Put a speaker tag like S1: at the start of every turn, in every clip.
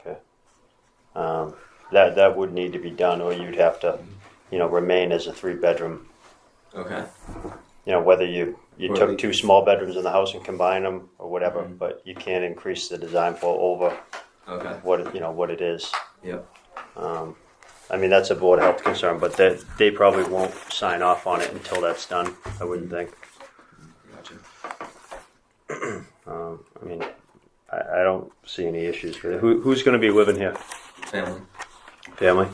S1: Okay. Um, that, that would need to be done, or you'd have to, you know, remain as a three-bedroom.
S2: Okay.
S1: You know, whether you, you
S2: Or the-
S1: took two small bedrooms in the house and combined them, or whatever, but you can't increase the design for over
S2: Okay.
S1: what, it- you know, what it is.
S2: Yep.
S1: Um, I mean, that's a board health concern, but they, they probably won't sign off on it until that's done, I wouldn't think.
S2: Gotcha.
S1: Um, I mean, I, I don't see any issues with it. Who, who's gonna be living here?
S2: Family.
S1: Family?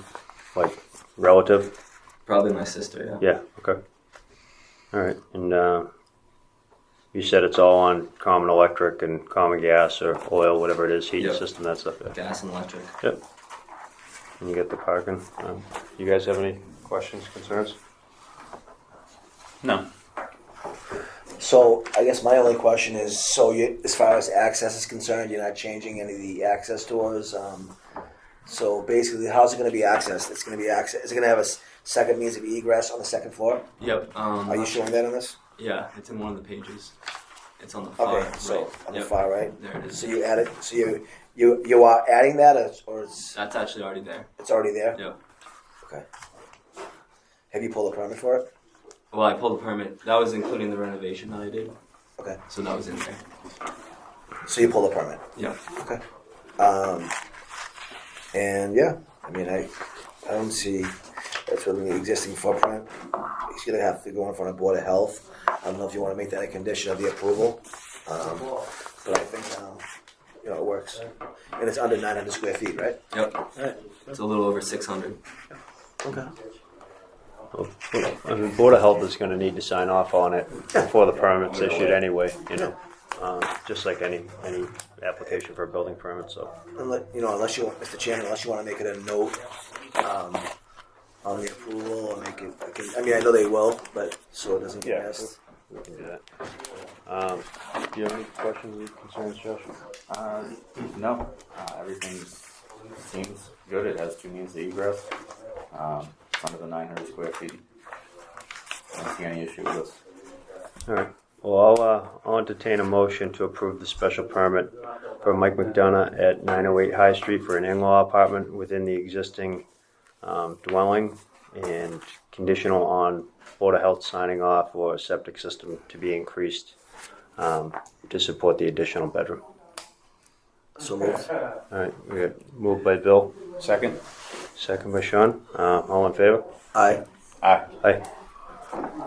S1: Like relative?
S2: Probably my sister. Yeah.
S1: Yeah, okay. All right, and, uh, you said it's all on common electric and common gas or oil, whatever it is, heating
S2: Yep.
S1: system, that stuff. yeah.
S2: Gas and electric.
S1: Yep. And you get the parking. Um, You guys have any questions, concerns?
S3: No.
S4: So I guess my only question is, so you, as far as access is concerned, you're not changing any of the access doors. Um, so basically, how's it going to be accessed? It's going to be access. Is it going to have a s- second means of egress on the second floor?
S2: Yep. Um.
S4: Are you showing that on this?
S2: Yeah, it's in one of the pages. It's on the far
S4: Okay, so
S2: Uh-huh. right.
S4: on
S2: yep.
S4: the far right.
S2: There it is.
S4: So you added. So you you you are adding that, or, it's- or it's
S2: That's actually already there.
S4: it's already there.
S2: Yep.
S4: Have you pulled a permit for it?
S2: Well, I pulled a permit. That was including the renovation that I did.
S4: Okay.
S2: So that was in there.
S4: So you pulled a permit.
S2: Yep.
S4: Um, and yeah, I mean, I, I don't see that's within the existing footprint. He's gonna have to go in front of Board of Health. I don't know if you wanna make that a condition of the approval. Um, but I think, um, you know, it works. And it's under nine hundred square feet, right?
S2: Yep. It's a little over 600.
S4: Okay.
S1: I mean, Board of Health is gonna need to sign off on it before the permit's issued anyway, you know? Um, just like any, any application for a building permit, so.
S4: Unless, you know, unless you, Mr. Chairman, unless you wanna make it a note, um, on the approval or make it, I can, I mean, I know they will, but so it doesn't get
S1: Yeah.
S4: missed.
S1: we can do that. Um, do you have any questions or concerns, Josh?
S3: Uh, no. Uh, everything seems good. It has two means of egress. Um, it's under the 900 square feet. I don't see any issue with this.
S1: Alright, well, I'll, uh, I'll entertain a motion to approve the special permit for Mike McDonough at nine oh eight High Street for an in-law apartment within the existing, um, dwelling and conditional on Board of Health signing off or a septic system to be increased, um, to support the additional bedroom.
S4: So moved.
S1: Alright, we got moved by Bill,
S3: Second?
S1: second by Sean, uh, all in favor?
S4: Aye.
S3: Aye.
S1: Aye.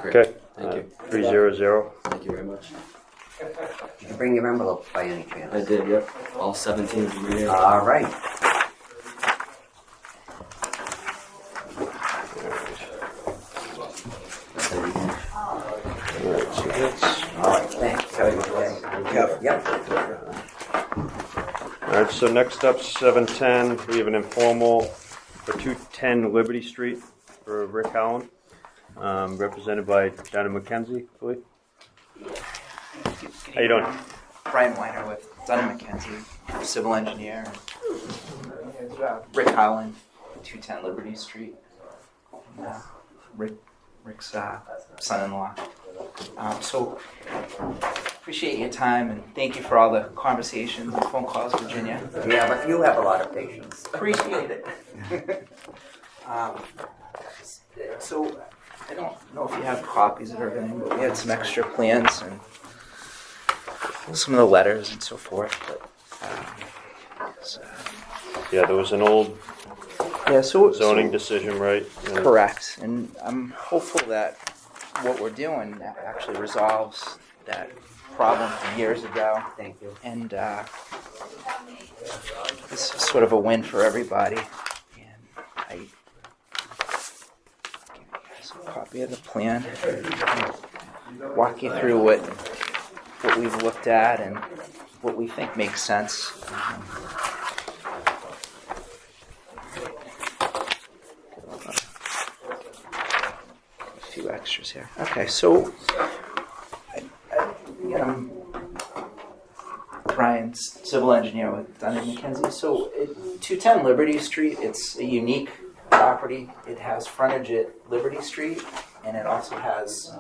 S2: Great.
S1: Okay. Uh,
S2: Thank you.
S1: Three zero zero.
S2: Thank you very much.
S5: Did you bring your envelope by any
S2: I
S5: chance?
S2: did, yep. All 17 of them are
S4: Uh,
S2: here.
S5: All right. All right, thanks. Have a good day.
S4: Kevin.
S5: Yep.
S1: All right, so next up, seven ten, we have an informal for two ten Liberty Street for Rick Howland, um, represented by Donna McKenzie, I believe. How you doing?
S6: Brian Weiner with Dunn McKenzie, civil engineer. Rick Howland, 210 Liberty Street. And, uh, Rick, Rick's uh, son-in-law. Um, so appreciate your time and thank you for all the conversations and phone calls, Virginia.
S5: Yeah, but you have a lot of patience.
S6: Appreciate it. um, so I don't know if you have copies of everything, but we had some extra plans and some of the letters and so forth. But um, so-
S1: Yeah, there was an old
S6: yeah, so
S1: zoning
S6: so-
S1: decision, right? And-
S6: correct, and I'm hopeful that what we're doing actually resolves that problem from years ago.
S5: Thank you.
S6: and uh, this is sort of a win for everybody. And I give you guys a copy of the plan, walk you through what what we've looked at and what we think makes sense. A few extras here. Okay, so. I, I, you know, Brian, s- civil engineer with Dunning McKenzie. So, it, 210 Liberty Street, it's a unique property. It has frontage at Liberty Street, and it also has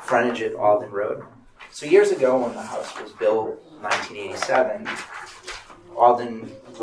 S6: frontage at Alden Road. So, years ago, when the house was built, 1987, Alden